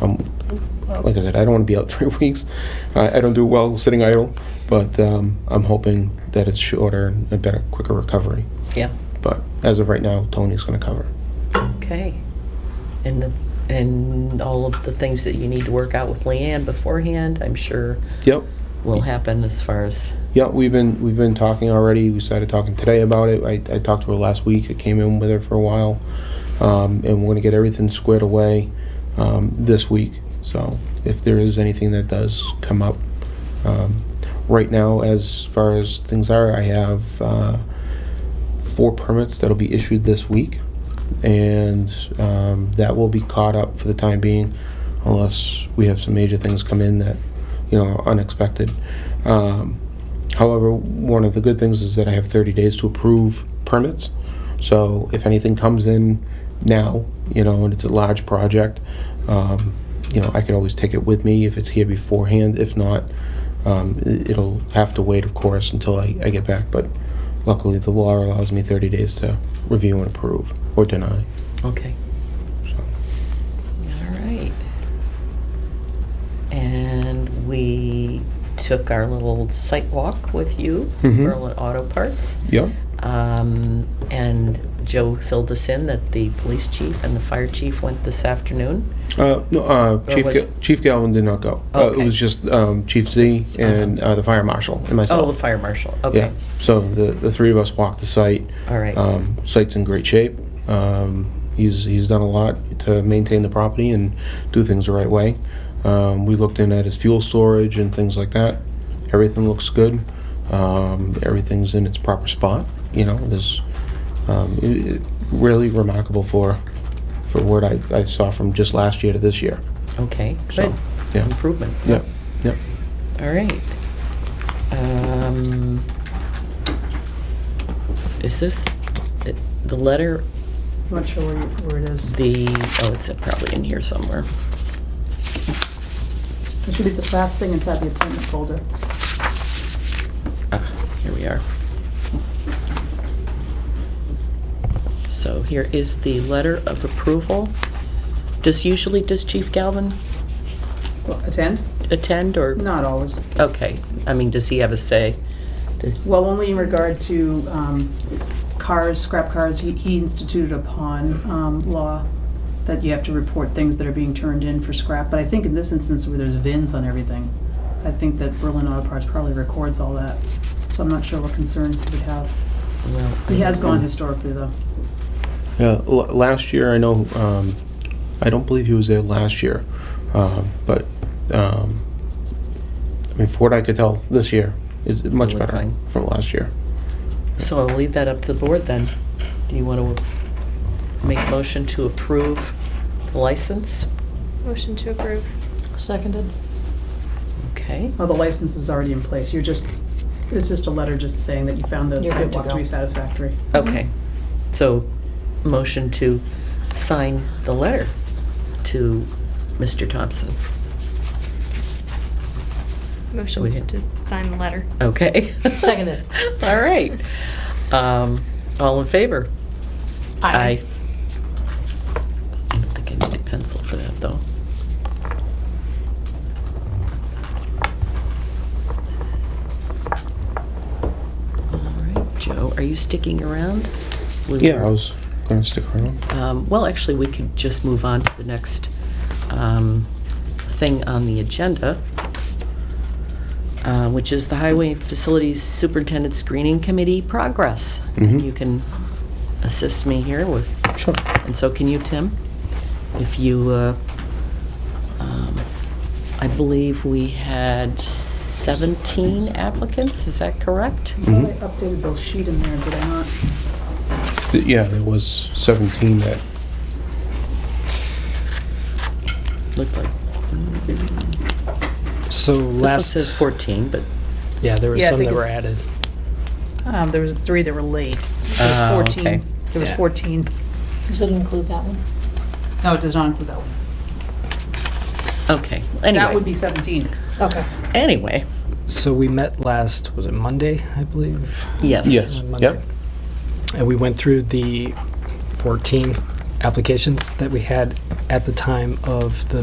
um, like I said, I don't want to be out three weeks. I, I don't do well sitting idle, but um, I'm hoping that it's shorter and a better, quicker recovery. Yeah, But as of right now, Tony's going to cover. okay. And, the- and all of the things that you need to work out with Leanne beforehand, I'm sure Yep. will happen as far as, Yeah, we've been we've been talking already. We started talking today about it. I, I talked to her last week. I came in with her for a while, um, and we're gonna get everything squared away um, this week. So if there is anything that does come up, um, right now as far as things are, I have uh, four permits that'll be issued this week, and um, that will be caught up for the time being, unless we have some major things come in that you know are unexpected. Um, However, one of the good things is that I have 30 days to approve permits. So if anything comes in now, you know, and it's a large project, um, you know, I can always take it with me if it's here beforehand. If not, um, i- it'll have to wait, of course, until I, I get back. But luckily, the law allows me 30 days to review and approve or deny. okay. So. All right. And we took our little site walk with you, Mhm. Berlin Auto Parts. Yeah. Um, And Joe filled us in that the police chief and the fire chief went this afternoon. Uh, no, uh, Or Chief, was Ga- it- Chief Galvin did not go. Uh, Okay. it was just um, Chief Z and uh, the fire marshal and myself. Oh, the fire marshal, okay. Yeah, so the, the three of us walked the site. All right. Um, site's in great shape. Um, he's, he's done a lot to maintain the property and do things the right way. Um, we looked in at his fuel storage and things like that. Everything looks good. Um, everything's in its proper spot, you know, it is, um, it, it really remarkable for, for what I, I saw from just last year to this year. Okay, So, good. yeah, Improvement. yeah, yeah. All right. Um, Is this, it- the letter, Not sure where, you- where it is. the, oh, it's probably in here somewhere. It should be the last thing inside the appointment folder. Ah, Here we are. So here is the letter of approval. Does usually, does Chief Galvin Well, Attend? attend or? Not always. Okay, I mean, does he have a say? Does- Well, only in regard to um, cars, scrap cars, he- he instituted upon um, law that you have to report things that are being turned in for scrap. But I think in this instance where there's VINs on everything, I think that Berlin Auto Parts probably records all that. So I'm not sure what concern he would have. Well, I He has don't- gone historically, though. Yeah, l- last year I know. Um, I don't believe he was there last year, um, but um, I mean, for what I could tell, this year is much Really better fine. from last year. So I'll leave that up to the board then. Do you want to make a motion to approve the license? Motion to approve. Seconded. Okay, Well, the license is already in place. You're just, it's just a letter just saying that you found the You're good to sidewalk to go. be satisfactory. okay. So, motion to sign the letter to Mr. Thompson. We Motion did. to sign the letter. Okay? Seconded. All right. Um, All in favor? I don't think I need a pencil for that, though. All right, Joe, are you sticking around? We Yeah, I were- was going to stick around. um, Well, actually, we could just move on to the next um, thing on the agenda, uh, which is the Highway Facilities Superintendent Screening Committee progress. And Mhm. you can assist me here with Sure. and so can you, Tim? If you, uh, um, I believe we had 17 applicants, is that correct? I thought I updated the sheet in there, did I not? Th- Yeah, there was 17 that. Looked like, So this one last, says 14, but, yeah, there were Yeah, I some think that it- were added. Um, there was three that were late. There was Ah, 14. okay. There was Yeah. 14. Does it include that one? No, it does not include that one. okay. That would Anyway, be 17. Okay. anyway, So we met last, was it Monday, I believe? yes. Yes. On Yep. Monday. And we went through the 14 applications that we had at the time of the